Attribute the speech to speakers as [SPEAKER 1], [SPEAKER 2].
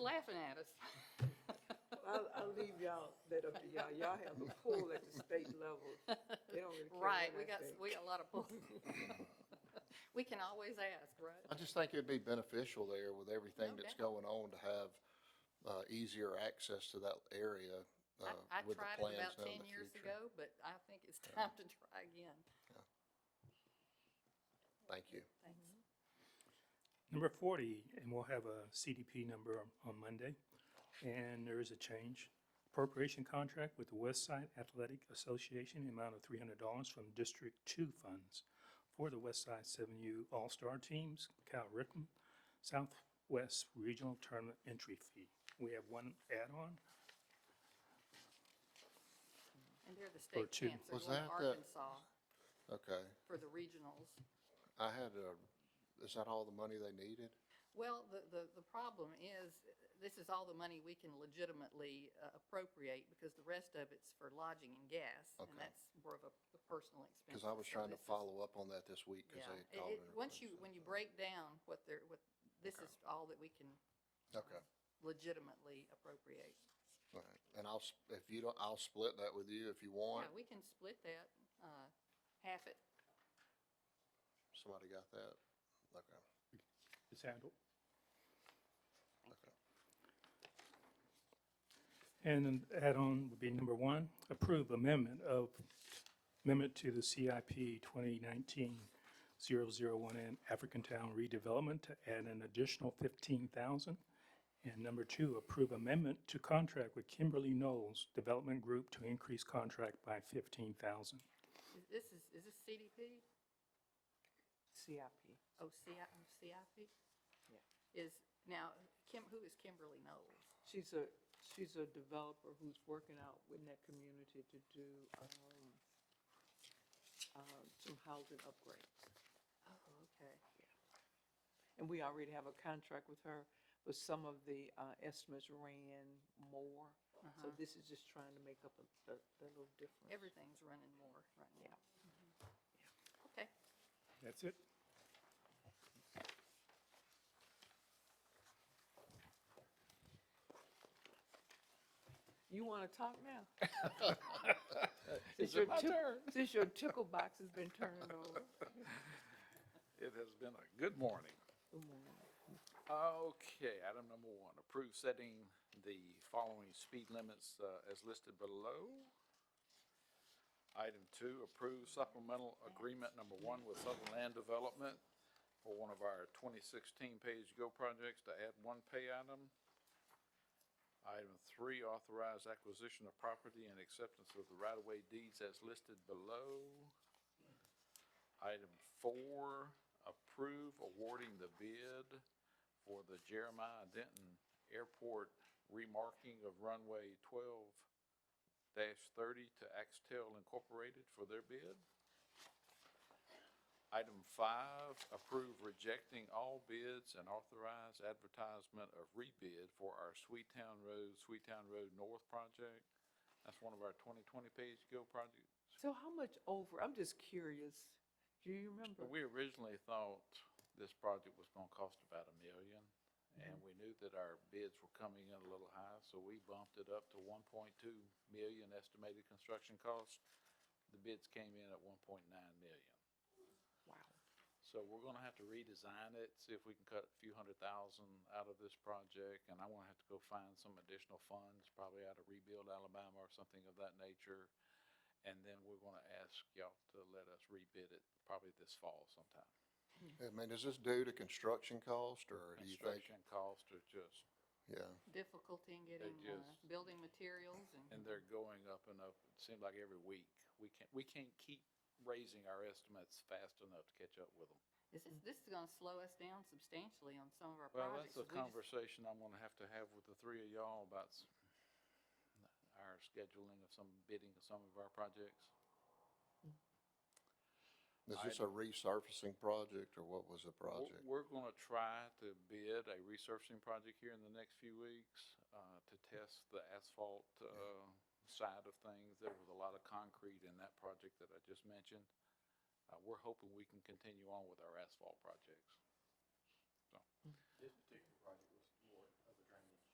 [SPEAKER 1] laughing at us.
[SPEAKER 2] I'll, I'll leave y'all, that up to y'all. Y'all have the pool at the state level. They don't really care
[SPEAKER 1] Right, we
[SPEAKER 2] what I
[SPEAKER 1] got,
[SPEAKER 2] say.
[SPEAKER 1] we got a lot of pull. We can always ask, right?
[SPEAKER 3] I just think it'd be beneficial there with
[SPEAKER 1] No
[SPEAKER 3] everything that's
[SPEAKER 1] doubt.
[SPEAKER 3] going on to have, uh, easier access to that area,
[SPEAKER 1] I,
[SPEAKER 3] uh,
[SPEAKER 1] I
[SPEAKER 3] with the
[SPEAKER 1] tried it
[SPEAKER 3] plans
[SPEAKER 1] about
[SPEAKER 3] now
[SPEAKER 1] ten
[SPEAKER 3] in the
[SPEAKER 1] years
[SPEAKER 3] future.
[SPEAKER 1] ago, but I think it's time to try again.
[SPEAKER 3] Thank you.
[SPEAKER 1] Thanks.
[SPEAKER 4] Number 40, and we'll have a CDP number on- on Monday, and there is a change. Appropriation contract with the West Side Athletic Association, the amount of $300 from District 2 funds for the West Side 7U All-Star Teams, Cal Ripken, Southwest Regional Tournament Entry Fee. We have one add-on.
[SPEAKER 1] And they're the state
[SPEAKER 4] two.
[SPEAKER 1] champs, they're
[SPEAKER 3] Was
[SPEAKER 1] going to
[SPEAKER 3] that the-
[SPEAKER 1] Arkansas
[SPEAKER 3] Okay.
[SPEAKER 1] for the regionals.
[SPEAKER 3] I had a, is that all the money they needed?
[SPEAKER 1] Well, the, the, the problem is, this is all the money we can legitimately uh, appropriate because the rest of it's for lodging and gas.
[SPEAKER 3] Okay.
[SPEAKER 1] And that's more of a a personal expense.
[SPEAKER 3] Cause I was trying to follow up on that this week, cause
[SPEAKER 1] Yeah,
[SPEAKER 3] they
[SPEAKER 1] It-
[SPEAKER 3] had called.
[SPEAKER 1] it-
[SPEAKER 3] and
[SPEAKER 1] once you,
[SPEAKER 3] everything,
[SPEAKER 1] when you break down what they're, what, this is all that we can
[SPEAKER 3] so. Okay,
[SPEAKER 1] legitimately appropriate.
[SPEAKER 3] all right. And I'll, s- if you don't, I'll split that with you if you want.
[SPEAKER 1] Yeah, we can split that, uh, half it.
[SPEAKER 3] Somebody got that? Okay,
[SPEAKER 4] It's handled.
[SPEAKER 3] okay.
[SPEAKER 4] And an add-on would be number one, approve amendment of, amendment to the CIP 2019-001 and African Town redevelopment to add an additional 15,000. And number two, approve amendment to contract with Kimberly Knowles Development Group to increase contract by 15,000.
[SPEAKER 1] Is- This is, is this CDP?
[SPEAKER 2] CIP.
[SPEAKER 1] Oh, CI, oh, CIP?
[SPEAKER 2] Yeah.
[SPEAKER 1] Is, now, Kim, who is Kimberly Knowles?
[SPEAKER 2] She's a, she's a developer who's working out with that community to do, um, um, some housing upgrades.
[SPEAKER 1] Oh, okay.
[SPEAKER 2] And we already have a contract with her, but some of the, uh, estimates ran more.
[SPEAKER 1] Uh-huh.
[SPEAKER 2] So this is just trying to make up a, a, a little difference.
[SPEAKER 1] Everything's running more right now. Mm-hmm.
[SPEAKER 2] Yeah.
[SPEAKER 1] Okay.
[SPEAKER 4] That's it.
[SPEAKER 2] You want to talk now? Since your
[SPEAKER 5] my
[SPEAKER 2] tick-
[SPEAKER 5] turn?
[SPEAKER 2] Since your tickle box has been turned over.
[SPEAKER 5] It has been a good morning.
[SPEAKER 2] Good morning.
[SPEAKER 5] Okay, item number one, approve setting the following speed limits uh, as listed below. Item two, approve supplemental agreement number one with Southern Land Development for one of our 2016 Page Go projects to add one pay item. Item three, authorize acquisition of property and acceptance of the right-of-way deeds as listed below. Item four, approve awarding the bid for the Jeremiah Denton Airport remarking of runway twelve thirty to Axtel Incorporated for their bid. Item five, approve rejecting all bids and authorize advertisement of rebid for our Sweetown Road, Sweetown Road North project. That's one of our twenty twenty page go projects.
[SPEAKER 2] So how much over, I'm just curious, do you remember?
[SPEAKER 5] We originally thought this project was gonna cost about a million, and we knew that our bids were coming in a little high, so we bumped it up to one point two million estimated construction cost. The bids came in at one point nine million.
[SPEAKER 2] Wow.
[SPEAKER 5] So we're gonna have to redesign it, see if we can cut a few hundred thousand out of this project, and I'm gonna have to go find some additional funds, probably out of Rebuild Alabama or something of that nature. And then we're gonna ask y'all to let us rebid it probably this fall sometime.
[SPEAKER 3] I mean, is this due to construction cost or do you think?
[SPEAKER 5] Construction costs are just,
[SPEAKER 3] Yeah,
[SPEAKER 1] Difficulty in getting, uh,
[SPEAKER 5] just-
[SPEAKER 1] building materials and,
[SPEAKER 5] and they're going up and up, it seems like every week. We can't, we can't keep raising our estimates fast enough to catch up with them.
[SPEAKER 1] is this, this is gonna slow us down substantially on some of our
[SPEAKER 5] Well,
[SPEAKER 1] projects.
[SPEAKER 5] that's a
[SPEAKER 1] 'cause we just-
[SPEAKER 5] conversation I'm gonna have to have with the three of y'all about s- our scheduling of some bidding of some of our projects.
[SPEAKER 3] is this a resurfacing project or what was the
[SPEAKER 5] We're-
[SPEAKER 3] project?
[SPEAKER 5] We're gonna try to bid a resurfacing project here in the next few weeks, uh, to test the asphalt, uh, side of things. There was a lot of concrete in that project that I just mentioned. Uh, we're hoping we can continue on with our asphalt projects.
[SPEAKER 6] This particular project was